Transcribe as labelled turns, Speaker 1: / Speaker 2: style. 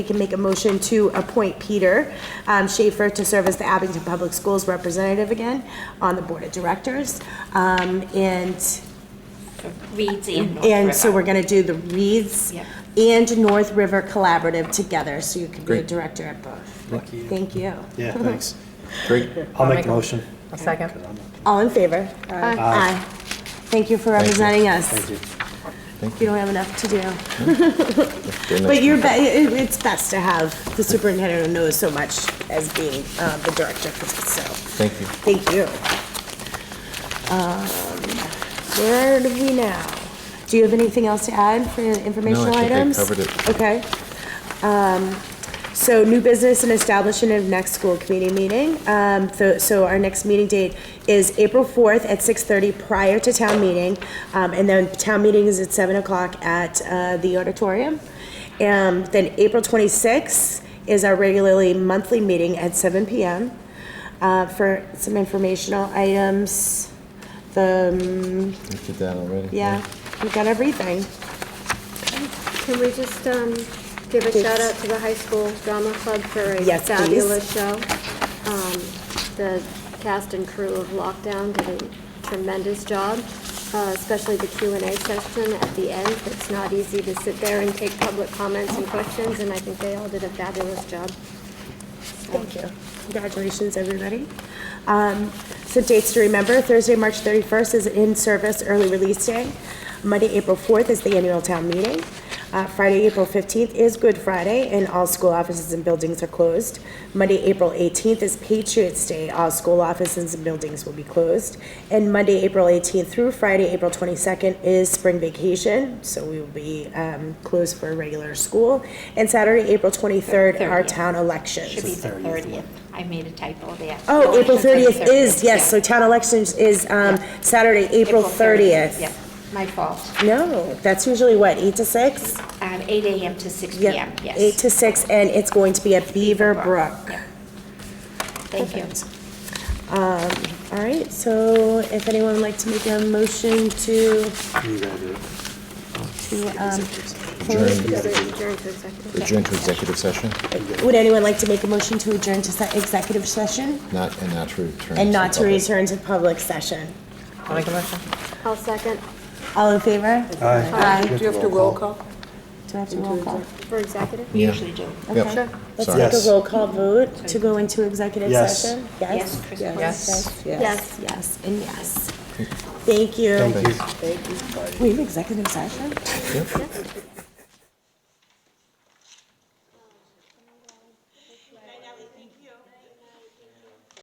Speaker 1: We can make a motion to appoint Peter um, Schaefer to serve as the Abington Public Schools representative again on the Board of Directors. Um, And
Speaker 2: Reeds and North
Speaker 1: And so
Speaker 2: River.
Speaker 1: we're going to do the Reeds
Speaker 2: Yep.
Speaker 1: and North River Collaborative together, so you can be a
Speaker 3: Great.
Speaker 1: director at both. Thank you.
Speaker 4: Yeah, thanks.
Speaker 3: Great.
Speaker 4: I'll make the motion.
Speaker 5: A second.
Speaker 1: All in favor? Aye. Thank you for representing us.
Speaker 4: Thank you.
Speaker 1: You don't have enough to do. But you're, be- it- it's best to have the superintendent who knows so much as being uh, the director, so,
Speaker 3: Thank you.
Speaker 1: thank you. Um, Where do we now? Do you have anything else to add for informational
Speaker 3: think I
Speaker 1: items?
Speaker 3: covered it.
Speaker 1: Okay. Um, So new business and establishment of next school committee meeting. Um, so- So our next meeting date is April 4th at 6:30 prior to town meeting. Um, And then town meeting is at 7 o'clock at uh, the auditorium. Um, Then April 26th is our regularly monthly meeting at 7 PM. Uh, For some informational items, the, um,
Speaker 3: You did that already.
Speaker 1: yeah, we've got everything.
Speaker 6: Can we just um, give a shout out to the high school drama club for a
Speaker 1: Yes, please.
Speaker 6: fabulous show? Um, The cast and crew of Lockdown did a tremendous job, uh, especially the Q and A session at the end. It's not easy to sit there and take public comments and questions, and I think they all did a fabulous job.
Speaker 1: Thank you. Congratulations, everybody. Um, So dates to remember, Thursday, March 31st is in-service early release day. Monday, April 4th is the annual town meeting. Uh, Friday, April 15th is Good Friday, and all school offices and buildings are closed. Monday, April 18th is Patriots' Day. All school offices and buildings will be closed. And Monday, April 18th through Friday, April 22nd is spring vacation, so we will be um, closed for regular school. And Saturday, April 23rd, our
Speaker 2: 30th.
Speaker 1: town elections.
Speaker 2: Should be the 30th. I made a typo there.
Speaker 1: Oh, April
Speaker 2: Should be
Speaker 1: 30th is, yes, so
Speaker 2: yeah.
Speaker 1: town elections is um, Saturday, April 30th.
Speaker 2: Yeah, my fault.
Speaker 1: No, that's usually what, 8 to 6?
Speaker 2: Um, 8 AM to 6
Speaker 1: Yep,
Speaker 2: PM, yes.
Speaker 1: 8 to 6, and it's going to be at Beaver Brook.
Speaker 2: Yeah. Thank you.
Speaker 1: Um, All right, so if anyone would like to make a motion to,
Speaker 4: You gotta do it.
Speaker 1: to, um,
Speaker 3: Adjourn,
Speaker 6: Is it adjourned to executive?
Speaker 3: adjourn to executive session,
Speaker 1: would anyone like to make a motion to adjourn to se- executive session
Speaker 3: not, and not to return.
Speaker 1: and not to
Speaker 3: public.
Speaker 1: return to public session?
Speaker 5: I'll make a motion.
Speaker 6: I'll second
Speaker 1: All in favor? Aye.
Speaker 4: Do you have to roll call?
Speaker 1: Do I have to roll call?
Speaker 6: for executive.
Speaker 2: We
Speaker 3: Yeah.
Speaker 2: usually do.
Speaker 3: Yep.
Speaker 1: Okay. Let's
Speaker 3: Sorry.
Speaker 1: take
Speaker 4: Yes.
Speaker 1: a roll call vote to go into executive
Speaker 4: Yes.
Speaker 1: session.
Speaker 2: Yes, Chris
Speaker 5: Yes.
Speaker 1: Yes,
Speaker 6: Yes.
Speaker 1: yes, and yes. Thank you.
Speaker 4: Thank you.
Speaker 1: We have executive session?
Speaker 3: Yep.